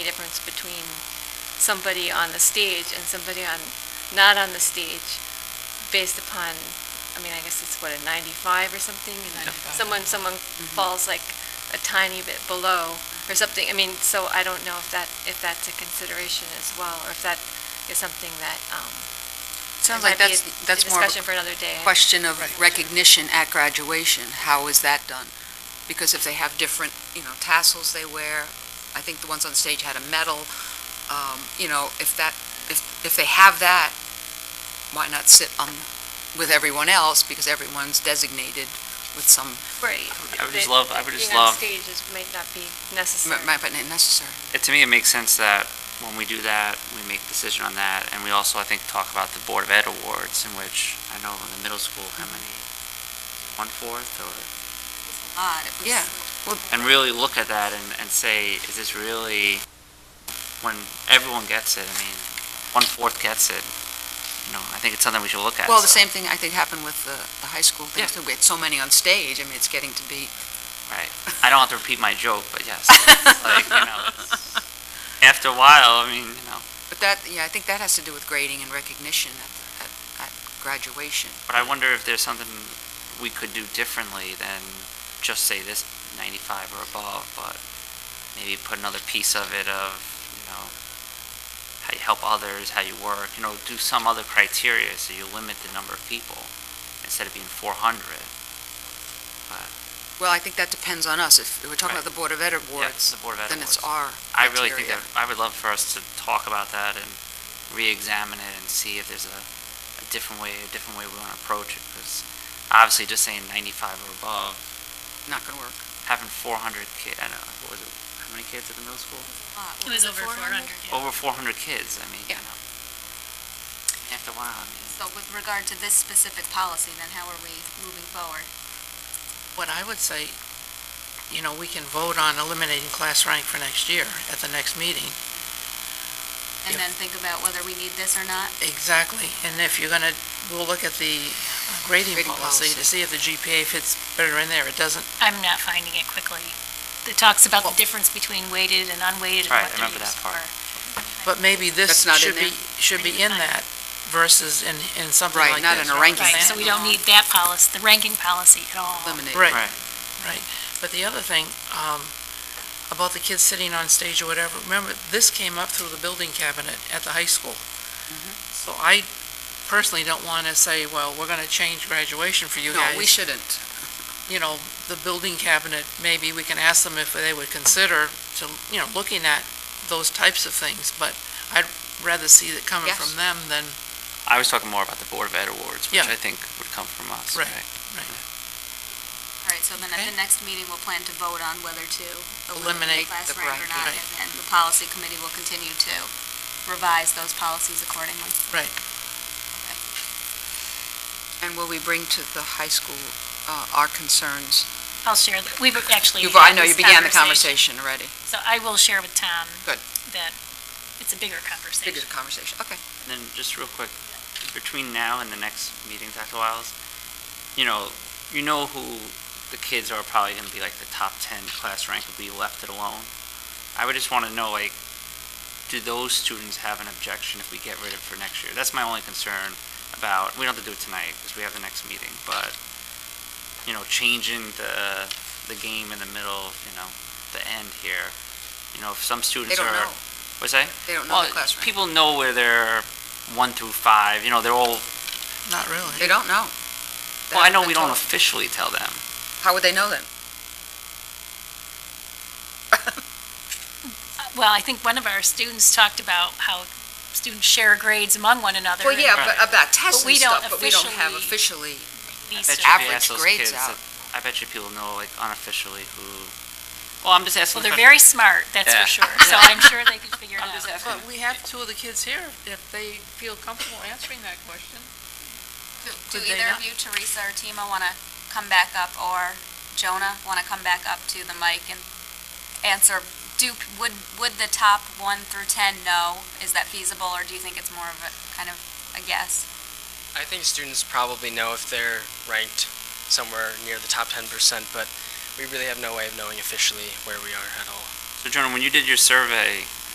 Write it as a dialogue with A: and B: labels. A: difference between somebody on the stage and somebody on, not on the stage, based upon, I mean, I guess it's what, a 95 or something? And
B: 95.
A: Someone, someone
C: Mm-hmm.
A: falls like a tiny bit below or something, I mean, so I don't know if that, if that's a consideration as well, or if that is something that, um...
D: Sounds
A: it
D: like
A: might be
D: that's,
A: a-
D: that's more
A: A
D: of
A: discussion for another day.
D: a question of recognition at graduation. How is that done? Because if they have different, you know, tassels they wear, I think the ones on stage had a medal, um, you know, if that, if, if they have that, why not sit on, with everyone else, because everyone's designated with some,
A: Right.
C: I would
A: That
C: just love, I would just
A: Being on
C: love,
A: stage is, might not be necessary.
D: might might not necessary.
C: it- to me, it makes sense that when we do that, we make decision on that, and we also, I think, talk about the Board of Ed awards, in which, I know in the middle school, how many, one-fourth, or,
D: Yeah.
C: and really look at that and, and say, is this really, when everyone gets it, I mean, one-fourth gets it, you know, I think it's something we should look at.
D: Well, the
C: so-
D: same thing I think happened with the, the high school thing,
C: Yeah.
D: too. We had so many on stage, I mean, it's getting to be.
C: Right. I don't have to repeat my joke, but yes, it's like, you know, it's- after a while, I mean, you know,
D: But that, yeah, I think that has to do with grading and recognition at, at, at graduation.
C: But I wonder if there's something we could do differently than just say this 95 or above, but maybe put another piece of it of, you know, how you help others, how you work, you know, do some other criteria so you limit the number of people instead of being 400.
D: Well, I think that depends on us. If we're talking about the Board of Ed awards,
C: the Board of Ed
D: then it's
C: awards.
D: our
C: I really think
D: criteria.
C: that, I would love for us to talk about that and re-examine it and see if there's a, a different way, a different way we want to approach it, because obviously just saying 95 or above
D: Not going to work.
C: having 400 kids, I don't know, what was it, how many kids at the middle school?
B: It was over 400.
C: Over 400 kids, I mean, you
D: Yeah.
C: know. After a while, I mean,
E: So with regard to this specific policy, then how are we moving forward?
B: What I would say, you know, we can vote on eliminating class rank for next year at the next meeting.
E: And
B: Yeah.
E: then think about whether we need this or not?
B: Exactly. And if you're going to, we'll look at the grading
D: Grading
B: policy
D: policy.
B: to see if the GPA fits better in there. It doesn't,
F: I'm not finding it quickly. It talks about
B: Well-
F: the difference between weighted and unweighted and
C: Right, I
F: what they're
C: remember that
F: used
C: part.
F: for.
B: but maybe this
D: That's not in
B: should be,
D: there?
B: should be in that versus in, in something
D: Right,
B: like this.
D: not in a ranking
F: Right, so we don't need that policy, the ranking policy at all.
D: Eliminate.
B: Right.
C: Right.
B: Right, but the other thing, um, about the kids sitting on stage or whatever, remember, this came up through the building cabinet at the high school.
D: Mm-hmm.
B: So I personally don't want to say, well, we're going to change graduation for you
D: No, we
B: guys.
D: shouldn't.
B: You know, the building cabinet, maybe we can ask them if they would consider to, you know, looking at those types of things, but I'd rather see it coming
D: Yes.
B: from them than,
C: I was talking more about the Board of Ed awards, which
B: Yeah.
C: I think would come from us.
B: Right.
E: All right, so then at the
B: Okay.
E: next meeting, we'll plan to vote on whether to
B: Eliminate
E: eliminate class
D: the
E: rank or
D: rank,
E: not.
B: right.
E: And then the policy committee will continue to revise those policies accordingly.
D: And will we bring to the high school uh, our concerns?
F: I'll share, that- we've actually.
D: You've, I
F: had
D: know you
F: this
D: began the conversation already.
F: So I will share with Tom.
D: Good.
F: That it's a bigger conversation.
D: Bigger conversation, okay.
C: And then just real quick, between now and the next meeting, Dr. Wiles, you know, you know who the kids are probably going to be like the top 10 class rank if we left it alone. I would just want to know, like, do those students have an objection if we get rid of it for next year? That's my only concern about, we don't have to do it tonight because we have the next meeting, but, you know, changing the, the game in the middle, of, you know, the end here. You know, if some
D: They
C: students are.
D: don't know,
C: What's that?
D: they don't know
C: Well,
D: the class rank.
C: people know where they're one through five, you know, they're all,
B: not really.
D: They don't know.
C: well, I know
D: They're
C: we don't
D: told.
C: officially tell them.
D: How would they know then?
F: Uh, Well, I think one of our students talked about how students share grades among one another.
D: Well,
F: and
D: yeah, but
C: Right.
D: about
F: But
D: tests
F: we
D: and
F: don't
D: stuff, but we don't have officially,
F: these
C: I bet you if
F: are-
C: you
D: average
C: ask those
D: grades
C: kids,
D: out.
C: I bet you people know, like, unofficially who, well, I'm just asking.
F: Well,
C: the
F: they're
C: question.
F: very smart, that's for
C: Yeah.
F: sure. So I'm sure they could figure it out.
B: But we have two of the kids here, if they feel comfortable answering that question.
E: Do
B: Could they
E: either
B: not?
E: of you, Teresa or Tima, want to come back up, or Jonah, want to come back up to the mic and answer, do, would, would the top one through 10 know? Is that feasible, or do you think it's more of a, kind of a guess?
G: I think students probably know if they're ranked somewhere near the top 10%, but we really have no way of knowing officially where we are at all.
C: So Jonah, when you did your survey,